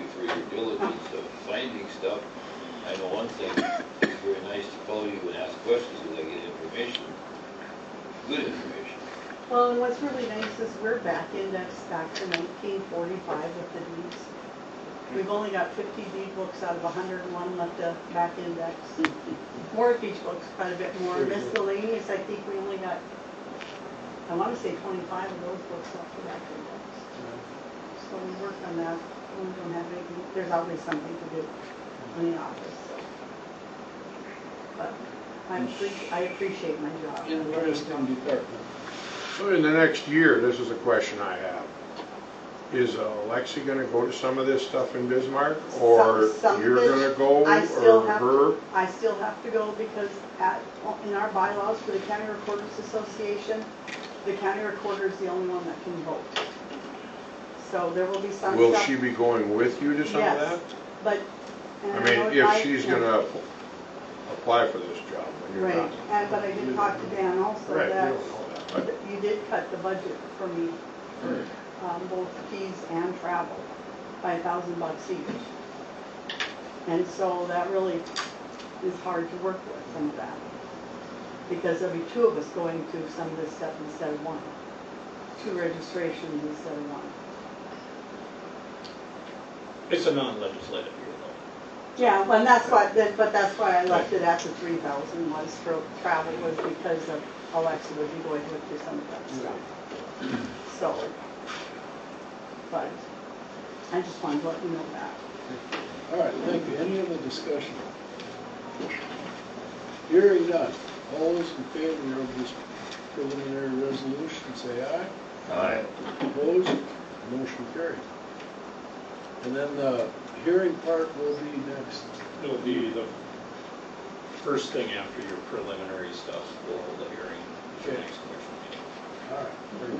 your diligence of finding stuff. I know one thing, it's very nice to call you and ask questions, because I get information, good information. Well, and what's really nice is we're back indexed back to nineteen forty-five with the deeds. We've only got fifty deed books out of hundred and one left to back index. Mortgage books quite a bit more, miscellaneous, I think we only got, I wanna say twenty-five of those books left to back index. So we work on that, we don't have any, there's always something to do in the office, so. But I appreciate, I appreciate my job. In various town departments. So in the next year, this is a question I have. Is uh, Alexi gonna go to some of this stuff in Bismarck, or Some- some you're of it, gonna go, I still or have her? to, I still have to go because at, in our bylaws for the county recorders association, the county recorder is the only one that can vote. So there will be some stuff. Will she be going with you to some of that? Yes, But. and I know mean, I- if she's gonna app- apply for this job when you're Right, not. and, but I did talk to Dan also Right, we that don't know that, but- you did cut the budget for me, for, um, both fees and travel by a thousand bucks each. And so that really is hard to work with, some of that. Because there'll be two of us going to some of this stuff instead of one. Two registrations instead of one. It's a non-legislative year though. Yeah, well, and that's why, that- but that's why I left it at the three thousand was for travel was because of Alexa would be going with you some of that stuff. So, but I just wanted to let you know that. All right, thank you. Any other discussion? Hearing none. All those in favor of this preliminary resolution, say aye. Opposed? Motion carried. And then the hearing part will be next. It'll be the first thing after your preliminary stuff, we'll hold a hearing at your Okay. next commission meeting. All right. very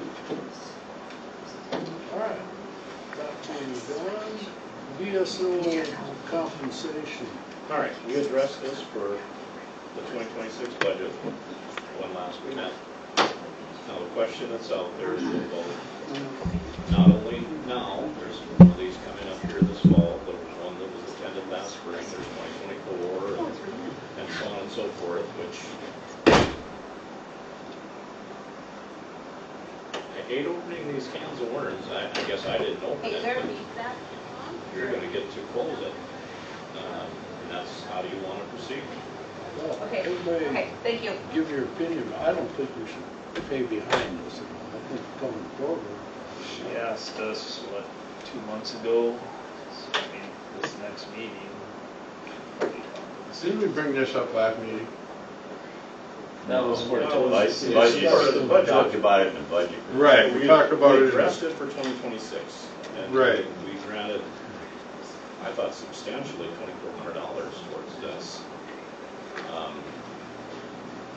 good. All right. That being done, DSO compensation. All right, we addressed this for the 2026 budget one last week. Now, the question itself, there is a vote Mm-hmm. not only now, there's one of these coming up here this fall, there was one that was attended last spring, there's Oh, 2024, and- and so on and so forth, which... I hate opening these cans of worms, I, I guess I didn't open Hey, it, there, but leave that. you're gonna get to close it. Um, And that's, how do you wanna proceed? Well, Okay, Oh, Everybody okay, thank you. give your opinion. I don't think we should pay behind this. at all. I think coming forward, She asked us, what, two months ago, So, I mean, this next meeting. probably Didn't we bring this up last meeting? That was for That the was- vice, yeah, vice she versa. said the We budget. talked about it in the budget. Right, we talked about We it, addressed in- it for 2026. and Right. We granted, I thought substantially $2,400 towards this. Um,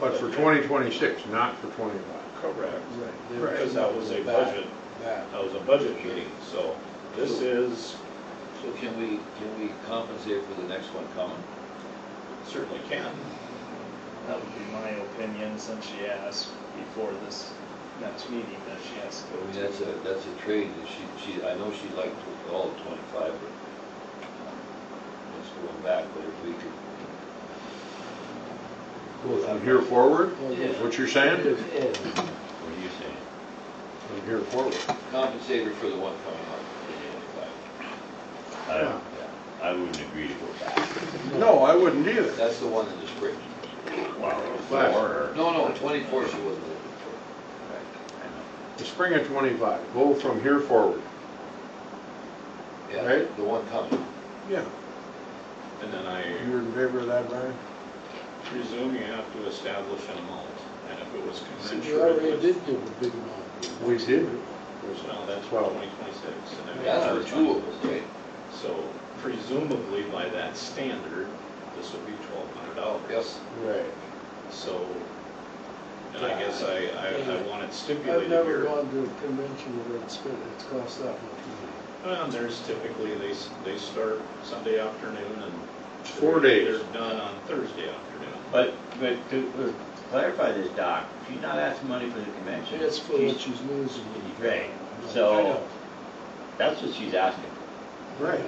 but for 2026, not for 25. Correct. Right. they- Because that was a Back- budget, Back. that was a budget meeting, so this is, So can we, can we compensate for the next one coming? certainly can. That would be my opinion, since she asked before this next meeting that she has to I mean, go that's to. a, that's a trade, that she, she, I know she'd like to, all twenty-five, but um, it's going back, but if we could. From here forward, Yeah. is what you're saying? What are you saying? From here forward. Compensate her for the one coming up, for I don't, I wouldn't agree to go back. No, I wouldn't the 25. either. That's the one in the spring. Wow, Last- four. No, no, twenty-four she wasn't looking for. The spring of 25, go from here forward. Yeah, Right? the one coming. Yeah. And then I You're in favor of that, Brian? presume you have to establish an amount, and if it was See, we already commensurate with, did give a big amount. We did. well, that's for Twelve. 2026. and then Yeah, there were that's for two of us, right? So presumably by that standard, this would be twelve hundred dollars. Yes. Right. So, and I guess I, I, I want it I've stipulated never here. gone to a convention where it's been, it's cost that much money. Um, there's typically, they, s- they start Sunday afternoon and. It's four they're- days. They're done on Thursday afternoon. But, but to uh, clarify this, Doc, she's not asking money for the convention. It's for what She's- she's losing. Right, I so know. that's what she's asking. Right.